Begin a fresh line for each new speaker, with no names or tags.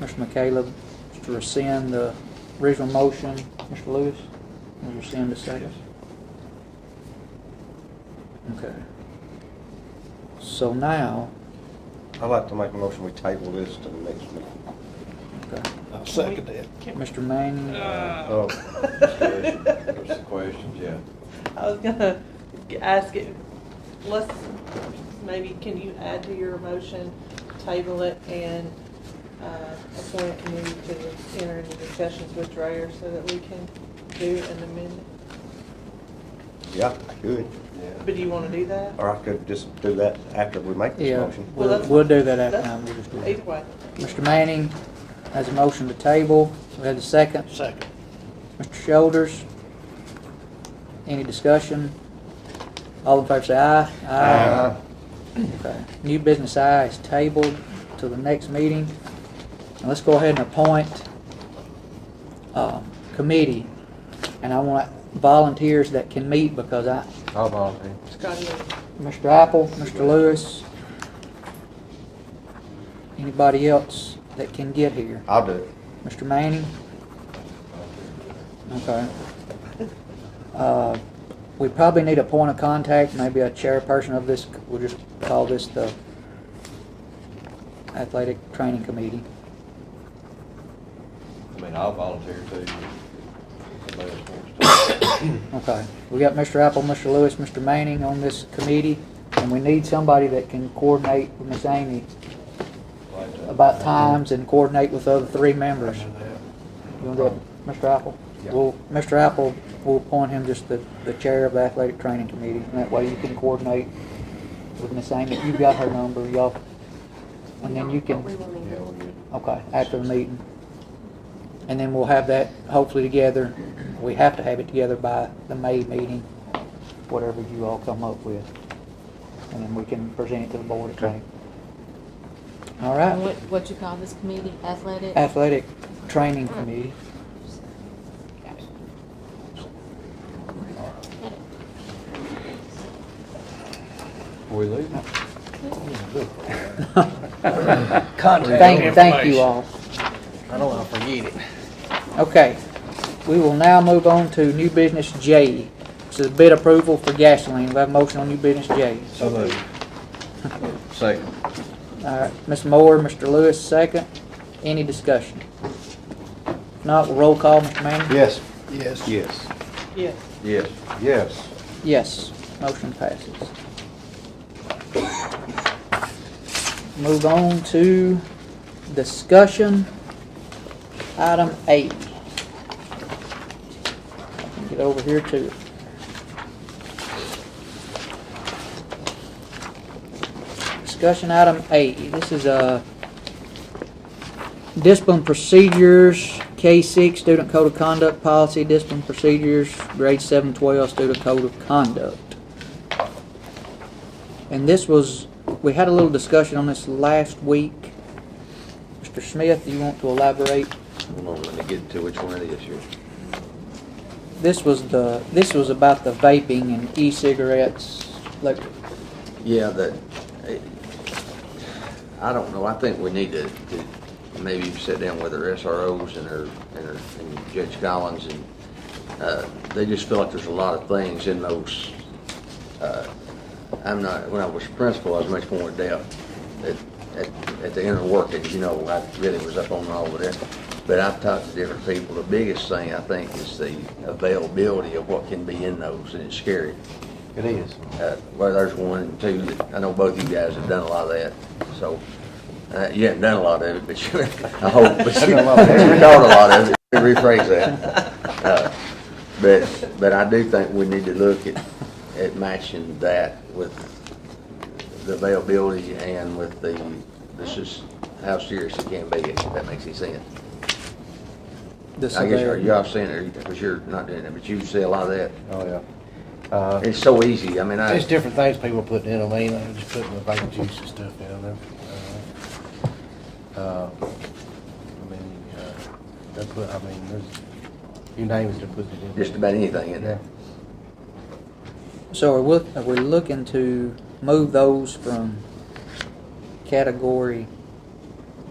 Mr. McCaleb is to rescind the original motion. Mr. Lewis, will you rescind the second? Okay. So now,
I'd like to make a motion, we table this to the next meeting.
okay,
I'll second that.
Mr. Manning,
Oh, discussion. There's the questions, yeah.
I was gonna ask it, let's, maybe can you add to your motion, table it and, uh, appoint a committee to enter into discussions with Dreyer so that we can do an amendment?
Yeah, I could, yeah.
But do you wanna do that?
Or I could just do that after we make this
yeah,
motion.
we'll,
Well, that's-
we'll do that after.
that's-
now, we'll just do it.
Either way.
Mr. Manning has a motion to table. We have a second.
Second.
Mr. Shoulders, any discussion? All in favor say aye.
Uh,
Okay. New business I is tabled to the next meeting. And let's go ahead and appoint um, committee. And I want volunteers that can meet because I,
I'll volunteer.
Scotty,
Mr. Apple, Mr. Lewis, anybody else that can get here.
I'll do it.
Mr. Manning? Okay. Uh, We probably need a point of contact, maybe a chairperson of this, we'll just call this the Athletic Training Committee.
I mean, I'll volunteer too. if somebody else wants to.
Okay. We got Mr. Apple, Mr. Lewis, Mr. Manning on this committee, and we need somebody that can coordinate with Miss Amy
Like that.
about times and coordinate with the other three members.
Under that.
You want that, Mr. Apple?
Yeah.
Well, Mr. Apple, we'll appoint him just the, the chair of the athletic training committee, and that way you can coordinate with Miss Amy. You've got her number, y'all. And then you
We
can,
will need
Yeah,
it.
we'll get it.
okay, after the meeting. And then we'll have that hopefully together. We have to have it together by the May meeting, whatever you all come up with. And then we can present it to the board at May. All
And
right,
What, what you call this committee, athletic?
athletic training committee.
Before we leave,
Thank, thank you all.
I don't want to forget it.
Okay, we will now move on to new business J. This is bid approval for gasoline. We have a motion on new business J.
so moved. Second.
All right, Ms. Moore, Mr. Lewis, second. Any discussion? If Not, we'll roll call, Mr. Manning?
Yes.
Yes.
Yes.
yes.
Yes.
Yes.
Yes, motion passes. Move on to discussion, item eight. Get over here to it. Discussion item eight, this is a discipline procedures, K six, student code of conduct policy, discipline procedures, grade seven twelve, student code of conduct. And this was, we had a little discussion on this last week. Mr. Smith, you want to elaborate?
Hold on, let me get to which one it is here.
This was the, this was about the vaping and e-cigarettes, like,
Yeah, that, it- I don't know, I think we need to, to maybe sit down with our SROs and our, and our- and Judge Collins and, uh, they just feel like there's a lot of things in those, uh, I'm not, when I was principal, I was much more adept at, at, at the inner workings, you know, I really was up on all of that. But I've talked to different people, the biggest thing I think is the availability of what can be in those, and it's scary.
It is.
Uh, Well, there's one and two that, I know both you guys have done a lot of that, so, uh, you haven't done a lot of it, but you, I hope, but you
I've done a lot of it.
you caught a lot of it, Let me rephrase that. Uh, But, but I do think we need to look at, at matching that with the availability and with the, this is how serious it can be, if that makes any sense.
the
I guess, are
severity.
y'all saying, it because you're not doing it, but you see a lot of that.
Oh, yeah. Uh,
It's so easy, I mean, I.
There's different things people put in them, ain't they? Just putting the bacon juice and stuff down there. Uh, uh, I mean, uh, they put, I mean, there's, you name it, they put it in.
just about anything in there.
So are we, are we looking to move those from category